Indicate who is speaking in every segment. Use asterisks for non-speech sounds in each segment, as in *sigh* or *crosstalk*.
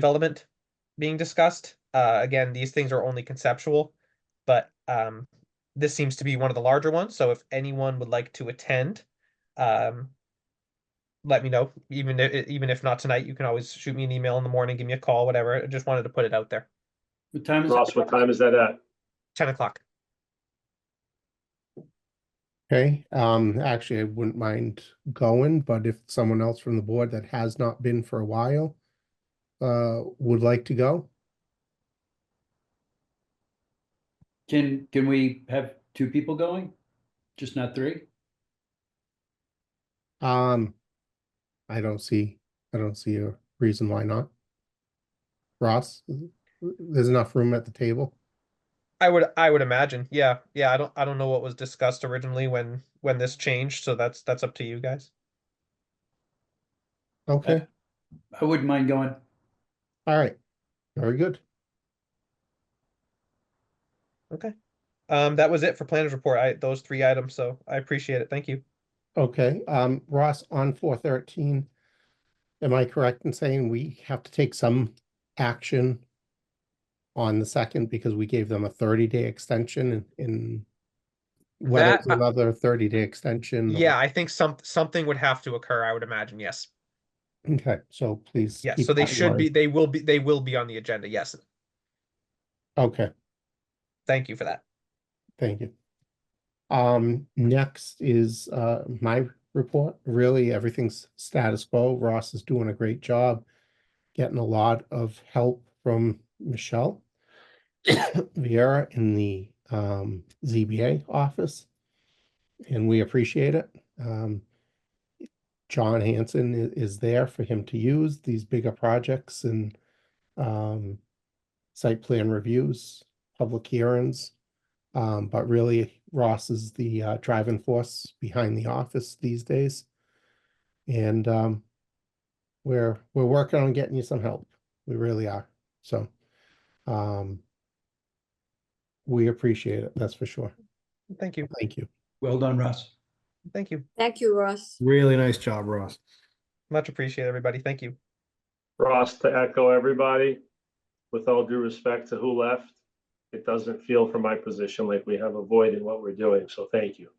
Speaker 1: development being discussed. Uh, again, these things are only conceptual, but um, this seems to be one of the larger ones. So if anyone would like to attend, um, let me know. Even if, even if not tonight, you can always shoot me an email in the morning, give me a call, whatever. I just wanted to put it out there.
Speaker 2: What time is
Speaker 3: Ross,
Speaker 2: it?
Speaker 3: what time is that at?
Speaker 1: Ten o'clock.
Speaker 4: Okay, um, actually, I wouldn't mind going, but if someone else from the board that has not been for a while uh, would like to go,
Speaker 2: Can, can we have two people going? Just not three?
Speaker 4: um, I don't see, I don't see a reason why not. Ross, there's enough room at the table.
Speaker 1: I would I would imagine. Yeah. Yeah. I don't I don't know what was discussed originally when when this changed. So that's that's up to you guys.
Speaker 4: Okay,
Speaker 2: I wouldn't mind going.
Speaker 4: all right, very good.
Speaker 1: Um, that was it for planners report. I those three items. So I appreciate it. Thank you.
Speaker 4: Okay, um, Ross, on four thirteen, am I correct in saying we have to take some action on the second because we gave them a thirty day extension and- and whether
Speaker 1: That-
Speaker 4: it's another thirty day extension? or-
Speaker 1: Yeah, I think some something would have to occur. I would imagine. Yes.
Speaker 4: Okay, so please.
Speaker 1: Yes.
Speaker 4: keep
Speaker 1: So they
Speaker 4: that in
Speaker 1: should be.
Speaker 4: mind.
Speaker 1: They will be. They will be on the agenda. Yes.
Speaker 4: Okay,
Speaker 1: Thank you for that.
Speaker 4: thank you. Um, next is, uh, my report. Really, everything's status quo. Ross is doing a great job. Getting a lot of help from Michelle. *coughs* Vieira in the um ZBA office. And we appreciate it. Um. John Hanson i- is there for him to use these bigger projects and um. Site plan reviews, public hearings. Um, but really Ross is the uh driving force behind the office these days. And um. We're, we're working on getting you some help. We really are. So. Um. We appreciate it, that's for sure.
Speaker 1: Thank you.
Speaker 4: Thank you.
Speaker 2: Well done, Russ.
Speaker 1: Thank you.
Speaker 5: Thank you, Ross.
Speaker 6: Really nice job, Ross.
Speaker 1: Much appreciate everybody. Thank you.
Speaker 3: Ross, to echo everybody, with all due respect to who left, it doesn't feel from my position like we have a void in what we're doing, so thank you,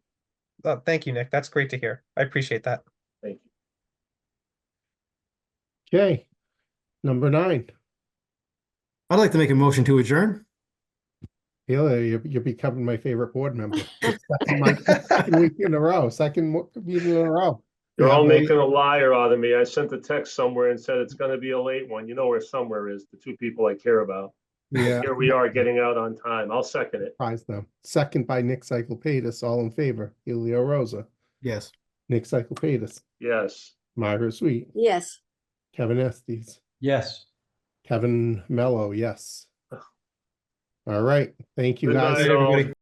Speaker 1: Uh, thank you, Nick. That's great to hear. I appreciate that.
Speaker 3: thank you.
Speaker 4: Okay, number nine,
Speaker 6: I'd like to make a motion to adjourn.
Speaker 4: Haley, you're, you're becoming my favorite board
Speaker 3: *laughs*
Speaker 4: member. It's second month- second week In a row, second mo- meeting in a row.
Speaker 3: You're all
Speaker 4: Yeah,
Speaker 3: making a liar out of me. I sent a text somewhere and said it's gonna be a late one. You know where somewhere is, the two people I care about.
Speaker 4: Yeah,
Speaker 3: Here we are getting out on time. I'll second it.
Speaker 4: surprise them. Second by Nick Cyclepatis, all in favor, Helio Rosa,
Speaker 6: Yes.
Speaker 4: Nick Cyclepatis,
Speaker 3: Yes,
Speaker 4: Myra Sweet,
Speaker 5: Yes.
Speaker 4: Kevin Estes,
Speaker 2: Yes.
Speaker 4: Kevin Mello, yes. All right, thank you
Speaker 3: Good
Speaker 4: guys.
Speaker 3: night, all.
Speaker 6: Everybody-